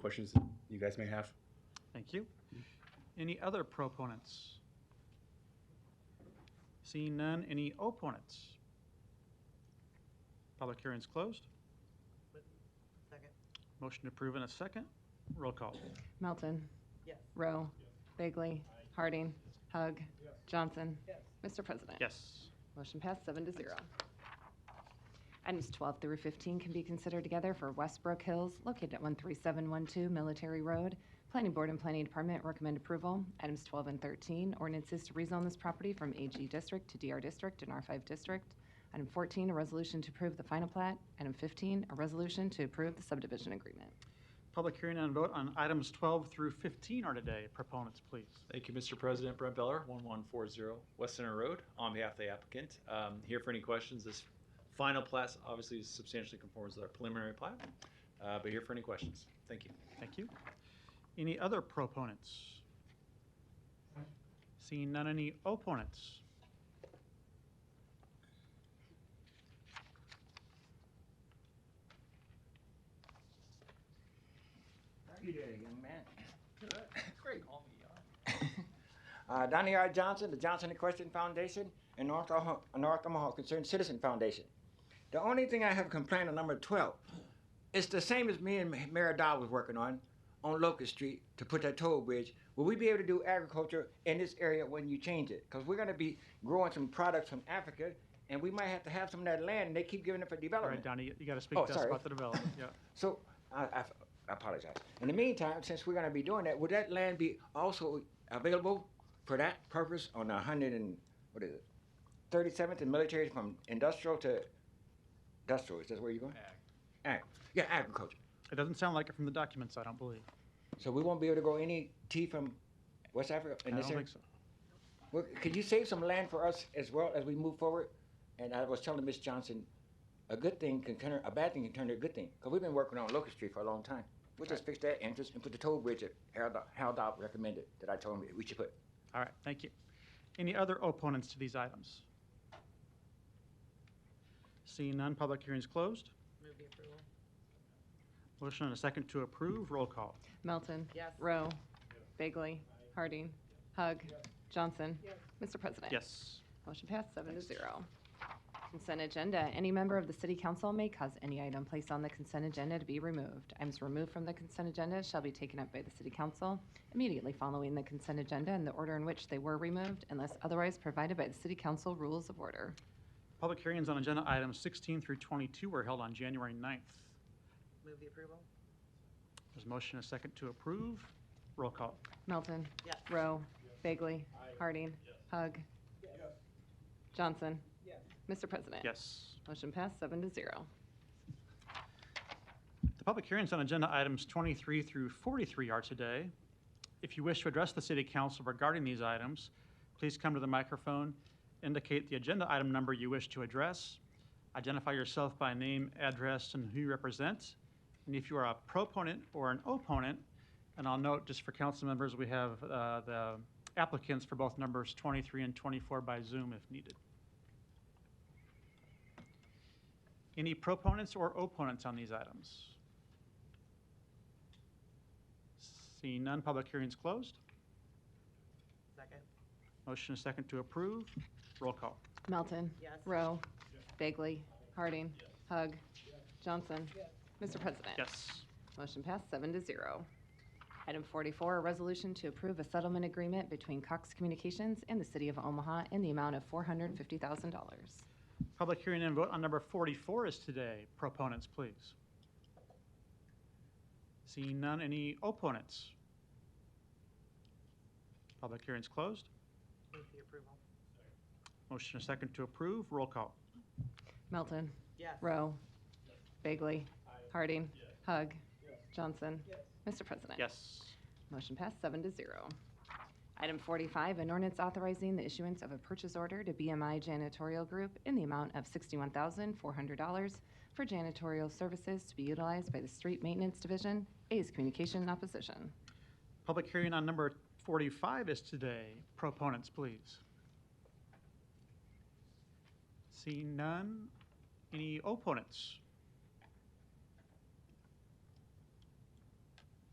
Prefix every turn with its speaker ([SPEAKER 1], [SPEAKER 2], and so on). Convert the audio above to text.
[SPEAKER 1] questions that you guys may have.
[SPEAKER 2] Thank you. Any other proponents? Seeing none, any opponents? Public hearing's closed.
[SPEAKER 3] Second.
[SPEAKER 2] Motion to approve in a second. Roll call.
[SPEAKER 4] Melton.
[SPEAKER 3] Yes.
[SPEAKER 4] Rowe. Bagley. Harding. Hug. Johnson.
[SPEAKER 3] Yes.
[SPEAKER 4] Mr. President.
[SPEAKER 2] Yes.
[SPEAKER 4] Motion passed seven to zero. Items 12 through 15 can be considered together for Westbrook Hills, located at 13712 Military Road. Planning Board and Planning Department recommend approval. Items 12 and 13, ordinances to rezone this property from AG District to DR District and R5 District. Item 14, a resolution to approve the final plat. Item 15, a resolution to approve the subdivision agreement.
[SPEAKER 2] Public hearing and vote on items 12 through 15 are today. Proponents, please.
[SPEAKER 1] Thank you, Mr. President. Brent Beller, 1140 West Center Road, on behalf of the applicant. Um, Here for any questions. This final plat obviously substantially conforms with our preliminary plat, uh, but here for any questions. Thank you.
[SPEAKER 2] Thank you. Any other proponents? Seeing none, any opponents?
[SPEAKER 5] You did it, young man. Great, Uh, Donnie R. Johnson, the Johnson Equestrian Foundation, and North Omaha, North Omaha Concerned Citizen Foundation. The only thing I have complained on number twelve, it's the same as me and Mayor Dodd was working on, on Locust Street to put that toll bridge. Will we be able to do agriculture in this area when you change it? Cause we're gonna be growing some products from Africa, and we might have to have some of that land, and they keep giving it for
[SPEAKER 2] All right,
[SPEAKER 5] development.
[SPEAKER 2] Donnie, you- you got to speak
[SPEAKER 5] Oh,
[SPEAKER 2] to us
[SPEAKER 5] sorry.
[SPEAKER 2] about the development. Yeah.
[SPEAKER 5] So I, I- I apologize. In the meantime, since we're going to be doing that, would that land be also available for that purpose on the hundred and what is it, thirty seventh and military from industrial to industrial? Is that where you're going? Ag. Yeah, agriculture.
[SPEAKER 2] It doesn't sound like it from the documents, I don't believe.
[SPEAKER 5] So we won't be able to grow any tea from West Africa
[SPEAKER 2] I
[SPEAKER 5] in
[SPEAKER 2] don't
[SPEAKER 5] this area.
[SPEAKER 2] think so.
[SPEAKER 5] Well, could you save some land for us as well as we move forward? And I was telling Miss Johnson, a good thing can turn, a bad thing can turn to a good thing, because we've been working on Locust Street for a long time. We'll just fix that entrance and put the toll bridge that Harold, Harold Dobb recommended, that I told him we should put.
[SPEAKER 2] All right, thank you. Any other opponents to these items? Seeing none, public hearing's closed.
[SPEAKER 3] Move the approval.
[SPEAKER 2] Motion and a second to approve, roll call.
[SPEAKER 4] Melton.
[SPEAKER 3] Yes.
[SPEAKER 4] Rowe. Bagley. Harding. Hug. Johnson. Mr. President.
[SPEAKER 2] Yes.
[SPEAKER 4] Motion passed seven to zero. Consent agenda. Any member of the city council may cause any item placed on the consent agenda to be removed. Items removed from the consent agenda shall be taken up by the city council immediately following the consent agenda in the order in which they were removed unless otherwise provided by the city council rules of order.
[SPEAKER 2] Public hearings on agenda items 16 through 22 were held on January 9th.
[SPEAKER 3] Move the approval.
[SPEAKER 2] There's a motion and a second to approve, roll call.
[SPEAKER 4] Melton.
[SPEAKER 3] Yes.
[SPEAKER 4] Rowe. Bagley. Harding. Hug. Johnson.
[SPEAKER 3] Yes.
[SPEAKER 4] Mr. President.
[SPEAKER 2] Yes.
[SPEAKER 4] Motion passed seven to zero.
[SPEAKER 2] The public hearings on agenda items 23 through 43 are today. If you wish to address the city council regarding these items, please come to the microphone, indicate the agenda item number you wish to address, identify yourself by name, address, and who you represent, and if you are a proponent or an opponent, and I'll note, just for council members, we have uh, the applicants for both numbers 23 and 24 by Zoom if needed. Any proponents or opponents on these items? Seeing none, public hearing's closed.
[SPEAKER 3] Second.
[SPEAKER 2] Motion is second to approve. Roll call.
[SPEAKER 4] Melton.
[SPEAKER 3] Yes.
[SPEAKER 4] Rowe. Bagley. Harding. Hug. Johnson. Mr. President.
[SPEAKER 2] Yes.
[SPEAKER 4] Motion passed seven to zero. Item 44, a resolution to approve a settlement agreement between Cox Communications and the City of Omaha in the amount of $450,000.
[SPEAKER 2] Public hearing and vote on number 44 is today. Proponents, please. Seeing none, any opponents? Public hearing's closed.
[SPEAKER 3] Move the approval.
[SPEAKER 2] Motion is second to approve. Roll call.
[SPEAKER 4] Melton.
[SPEAKER 3] Yes.
[SPEAKER 4] Rowe. Bagley. Harding. Hug. Johnson. Mr. President.
[SPEAKER 2] Yes.
[SPEAKER 4] Motion passed seven to zero. Item 45, an ordinance authorizing the issuance of a purchase order to BMI Janitorial Group in the amount of $61,400 for janitorial services to be utilized by the Street Maintenance Division. A is communication in opposition.
[SPEAKER 2] Public hearing on number 45 is today. Proponents, please. Seeing none, any opponents?